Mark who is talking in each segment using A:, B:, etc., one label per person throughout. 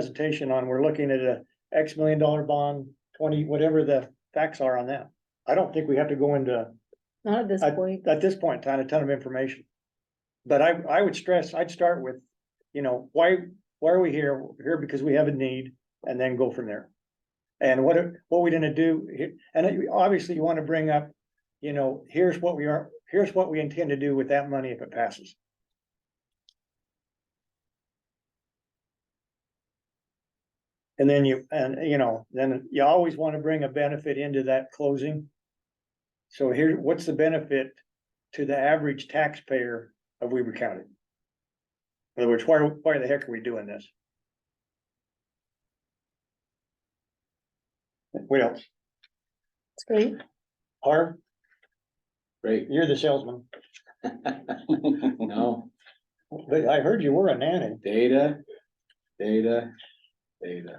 A: presentation on, we're looking at a X million dollar bond, twenty, whatever the facts are on that. I don't think we have to go into,
B: Not at this point.
A: at this point, in time, a ton of information. But I, I would stress, I'd start with, you know, why, why are we here? We're Here because we have a need and then go from there. And what, are- what we gonna do, here? and you- obviously you wanna bring up, you know, here's what we are, here's what we intend to do with that money if it passes. And then you, and you know, then you always wanna bring a benefit into that closing. So here, what's the benefit to the average taxpayer of Weber County? In other words, why, why the heck are we doing this? What else?
B: It's great.
A: Harv,
C: Great.
A: you're the salesman,
C: No,
A: but I heard you were a nanny.
C: data, data, data.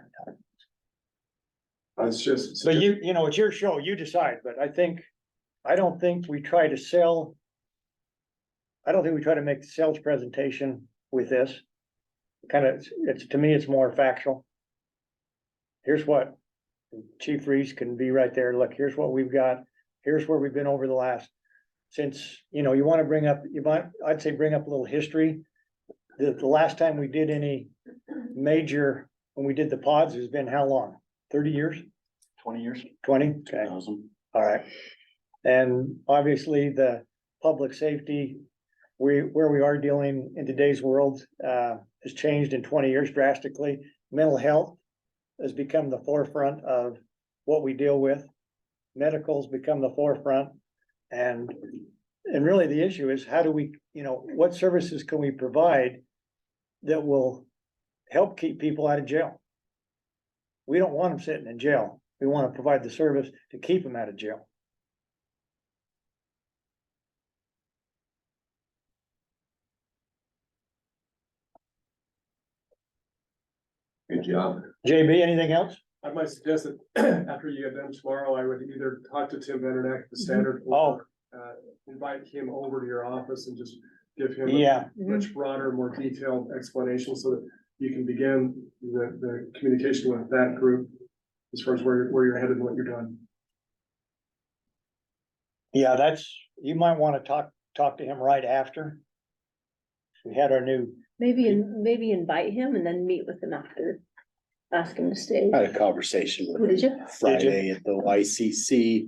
D: It's just.
A: But you, you know, it's your show, you decide, but I think, I don't think we try to sell. I don't think we try to make the sales presentation with this. Kind of, it's, to me, it's more factual. Here's what Chief Reese can be right there, look, here's what we've got, here's where we've been over the last. Since, you know, you want to bring up, you might, I'd say bring up a little history. The, the last time we did any major, when we did the pods, has been how long? Thirty years?
C: Twenty years.
A: Twenty, okay,
C: Thousand.
A: all right. And obviously, the public safety, we, where we are dealing in today's world, uh, has changed in twenty years drastically. Mental health has become the forefront of what we deal with. Medical's become the forefront. And, and really the issue is how do we, you know, what services can we provide that will help keep people out of jail? We don't want them sitting in jail. We want to provide the service to keep them out of jail.
D: Good job.
A: JB, anything else?
D: I might suggest that after you get done tomorrow, I would either talk to Tim Benedict, the standard. or, Uh, invite him over to your office and just give him. a
A: Yeah,
D: Much broader, more detailed explanation so that you can begin the, the communication with that group. As far as where, where you're headed and what you're doing.
A: yeah, that's, you might want to talk, talk to him right after. We had our new,
B: Maybe, in- maybe invite him and then meet with him after. Ask him to stay.
E: I had a conversation
B: Who
E: with
B: did
E: him
B: you?
E: Friday at the YCC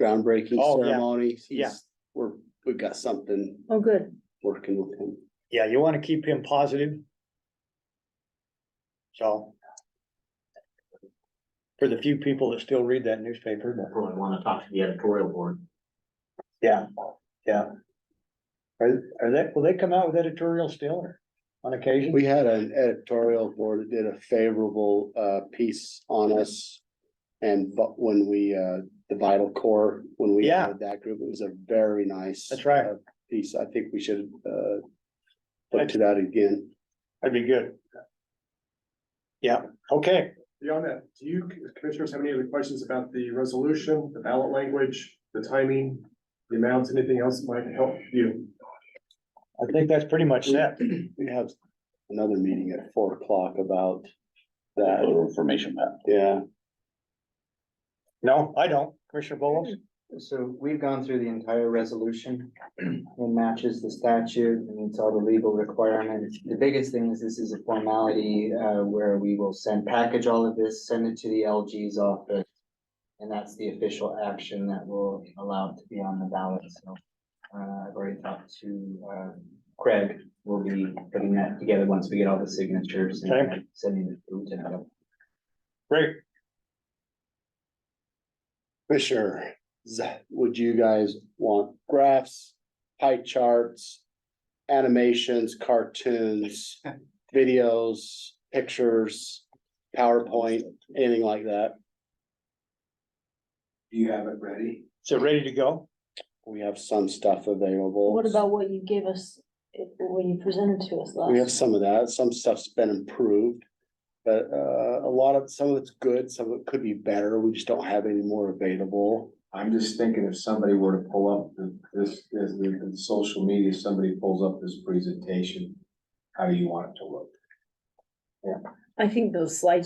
E: groundbreaking
A: Oh, yeah.
E: ceremony.
A: Yeah.
E: He's, we're, we've got something
B: Oh, good.
E: working with him.
A: yeah, you want to keep him positive. So. For the few people that still read that newspaper, but-
F: probably wanna talk to the editorial board.
A: yeah, yeah. Are, are they, will they come out with editorial still or on occasion?
E: We had an editorial board that did a favorable, uh, piece on us. And but when we, uh, the vital core, when we
A: Yeah.
E: had that group, it was a very nice.
A: That's right.
E: uh, Piece. I think we should, uh, look to that again.
A: That'd be good. Yeah, okay.
D: Beyond that, do you commissioners have any other questions about the resolution, the ballot language, the timing? The amounts, anything else that might help you?
A: I think that's pretty much that.
E: We have another meeting at four o'clock about that.
C: information map.
E: Yeah.
A: No, I don't. Commissioner Bolos?
G: So we've gone through the entire resolution. It matches the statute and it's all the legal requirements. The biggest thing is this is a formality uh where we will send, package all of this, send it to the LG's office. And that's the official action that will allow it to be on the ballot. So uh I've already talked to uh Craig. We'll be putting that together once we get all the signatures
A: Okay.
G: and sending it to Lieutenant Governor.
A: Great.
E: Fisher, would you guys want graphs, pie charts, animations, cartoons, videos, pictures, PowerPoint, anything like that?
C: You have it ready?
A: So ready to go?
E: We have some stuff available.
B: What about what you gave us, eh, when you presented to us
E: We have
B: last?
E: some of that. Some stuff's been improved. But uh, a lot of, some of it's good, some of it could be better. We just don't have any more available.
C: I'm just thinking if somebody were to pull up the- this, this, the, the social media, if somebody pulls up this presentation, how do you want it to look?
B: I think those slides